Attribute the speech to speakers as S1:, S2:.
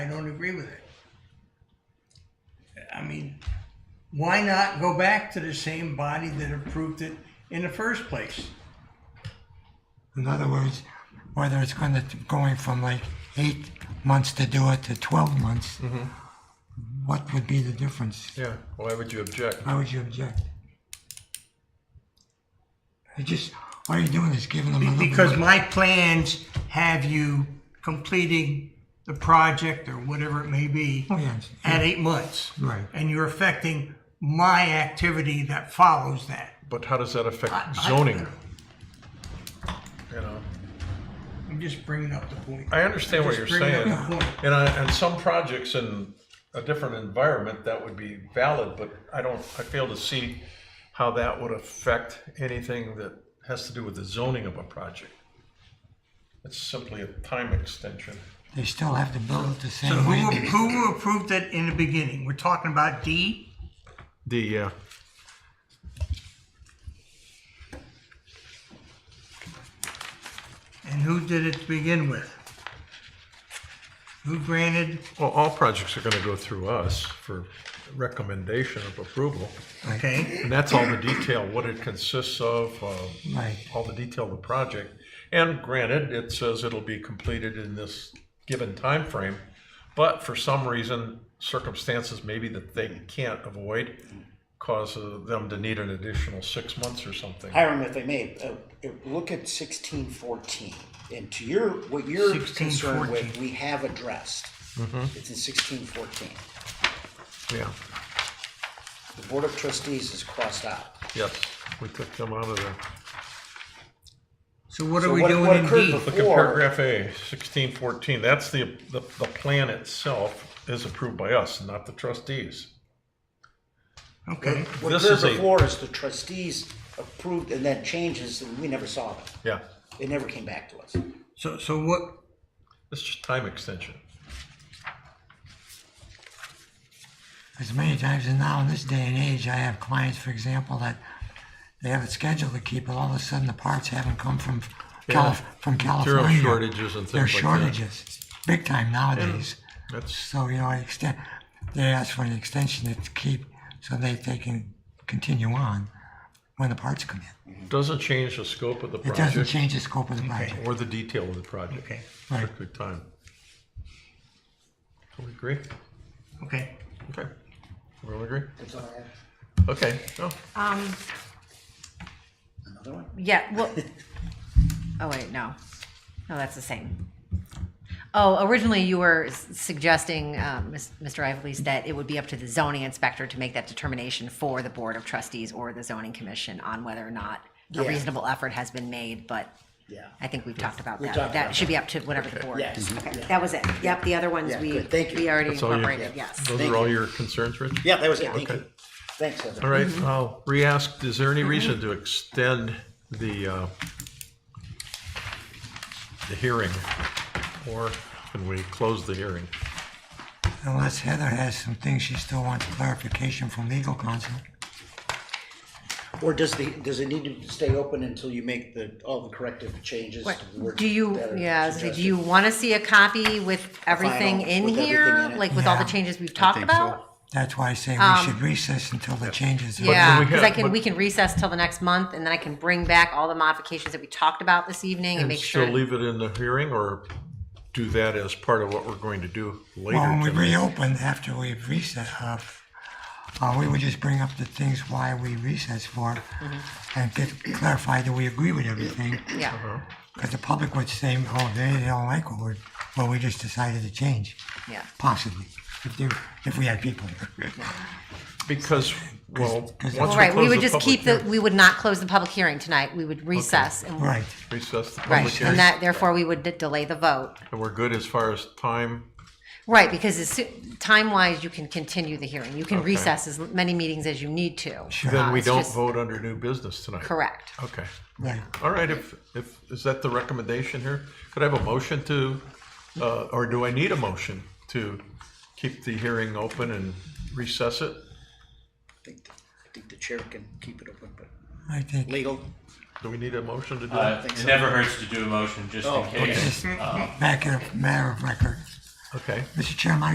S1: agree with it. I mean, why not go back to the same body that approved it in the first place?
S2: In other words, whether it's going to, going from like eight months to do it to 12 months,
S1: Mm-hmm.
S2: what would be the difference?
S3: Yeah, why would you object?
S2: How would you object? I just, all you're doing is giving them a little
S1: Because
S2: bit
S1: my plans have you completing the project or whatever it may be
S2: of plans.
S1: at eight months.
S2: Oh, Right.
S1: And you're affecting my activity that follows that.
S3: But how does that affect
S1: I-
S3: zoning? You know,
S1: I'm just bringing up the point.
S3: I understand what
S1: Just
S3: you're
S1: bringing up
S3: saying.
S1: the point.
S3: And I, and some projects in a different environment, that would be valid, but I don't, I fail to see how that would affect anything that has to do with the zoning of a project. It's simply a time extension.
S2: They still have to build it the
S1: So
S2: same
S1: who,
S2: way.
S1: who approved it in the beginning? We're talking about D?
S3: The, uh.
S1: And who did it to begin with? Who granted?
S3: Well, all projects are gonna go through us for recommendation of approval.
S1: Okay,
S3: And that's all the detail, what it consists of, uh,
S2: Right.
S3: all the detail of the project. And granted, it says it'll be completed in this given time frame, but for some reason, circumstances maybe that they can't avoid cause uh, them to need an additional six months or something.
S4: Hiram, if I may, uh, if- look at sixteen fourteen, and to your, what you're
S1: 16,
S4: concerned
S1: 14.
S4: with, we have addressed.
S3: Mm-hmm.
S4: It's in sixteen fourteen.
S3: Yeah,
S4: The Board of Trustees is crossed out.
S3: yes, we took them out of there.
S1: so what are
S4: So
S1: we
S4: what-
S1: doing
S4: what
S1: in
S4: occurred
S1: D?
S4: before-
S3: Look at paragraph A, sixteen fourteen, that's the, the, the plan itself is approved by us, not the trustees.
S1: Okay,
S4: What
S3: This
S4: occurred
S3: is a-
S4: before is the trustees approved and then changes, and we never saw it.
S3: Yeah,
S4: It never came back to us.
S1: so, so what,
S3: it's just time extension.
S2: As many times as now, in this day and age, I have clients, for example, that they have it scheduled to keep, but all of a sudden the parts haven't come from Calif, from
S3: Material
S2: California.
S3: shortages and
S2: There are
S3: things like that.
S2: shortages, big time nowadays.
S3: That's
S2: So, you know, I extend, they ask for an extension to keep, so they, they can continue on when the parts come in.
S3: Doesn't change the scope of the
S2: It doesn't
S3: project
S2: change the scope of the project.
S3: or the detail of the project.
S1: Okay.
S2: Right.
S3: Strictly time. Do we agree?
S1: okay.
S3: Okay. We all agree? Okay, no,
S5: Um,
S4: Another one?
S5: yeah, well, oh wait, no. No, that's the same. Oh, originally you were s- suggesting, um, Ms- Mr. Ivory's, that it would be up to the zoning inspector to make that determination for the Board of Trustees or the zoning commission on whether or not a
S4: Yeah.
S5: reasonable effort has been made, but
S4: Yeah.
S5: I think we've talked about
S4: We
S5: that.
S4: talked
S5: That
S4: about
S5: should be up to whatever the board.
S4: Yes.
S5: Okay,
S4: Yeah.
S5: That was it. Yep, the other ones
S4: Yeah,
S5: we,
S4: good. Thank you.
S5: we already
S3: That's all you-
S5: incorporated, yes.
S3: those
S4: Thank
S3: are all your concerns, Rich?
S4: Yeah, that was it. Thank
S3: Okay.
S4: you. Thanks, Heather.
S3: All right, I'll re-ask, is there any reason to extend the, uh, the hearing? Or can we close the hearing?
S2: Unless Heather has some things she still wants clarification from legal counsel.
S4: Or does the, does it need to stay open until you make the, all the corrective changes?
S5: What-
S4: to the words
S5: Do you,
S4: that are
S5: yeah, I was gonna say, do
S4: suggested?
S5: you want to see a copy with everything in
S4: with everything
S5: here?
S4: in it.
S5: Like with all the
S2: Yeah.
S5: changes we've talked about?
S2: That's why I say we should recess until the changes. are-
S5: Yeah,
S3: we
S5: because
S3: have-
S5: I can,
S3: but-
S5: we can recess till the next month and then I can bring back all the modifications that we talked about this evening and
S3: And
S5: make
S3: still
S5: sure.
S3: leave it in the hearing or do that as part of what we're going to do later?
S2: Well, when we
S3: tonight?
S2: reopen after we've recessed, uh, uh, we would just bring up the things why we recessed for
S3: Mm-hmm.
S2: and get clarified that we agree with everything.
S3: Uh-huh.
S5: Yeah,
S2: Because the public would say, oh, they they don't like what we're, what we just decided to change,
S5: yeah.
S2: possibly, if they, if we had people here.
S3: Because, well, once we
S2: Well,
S5: Well, right, we
S3: close
S5: would
S3: the
S5: just
S3: public
S5: keep the,
S3: hearing-
S5: we would not close the public hearing tonight. We would recess and,
S2: Right,
S3: Recess the public
S5: right,
S3: hearing,
S5: and that, therefore we would de- delay the vote.
S3: and we're good as far as time.
S5: Right, because as soo- time-wise, you can continue the hearing. You can
S3: Okay.
S5: recess as many meetings as you need to.
S2: Sure.
S3: Then
S5: Uh,
S3: we
S5: it's
S3: don't
S5: just-
S3: vote under new business tonight.
S5: Correct.
S3: Okay.
S2: right.
S3: All right, if, if, is that the recommendation here? Could I have a motion to, uh, or do I need a motion to keep the hearing open and recess it?
S4: I think, I think the chair can keep it open, but
S2: I think,
S4: legal,
S3: Do we need a motion to do
S6: Uh,
S3: that?
S4: think
S6: it
S4: so.
S6: never hurts to do a motion just
S4: Oh,
S6: in case.
S2: just back in a matter of record.
S3: Okay.
S2: Mr. Chairman,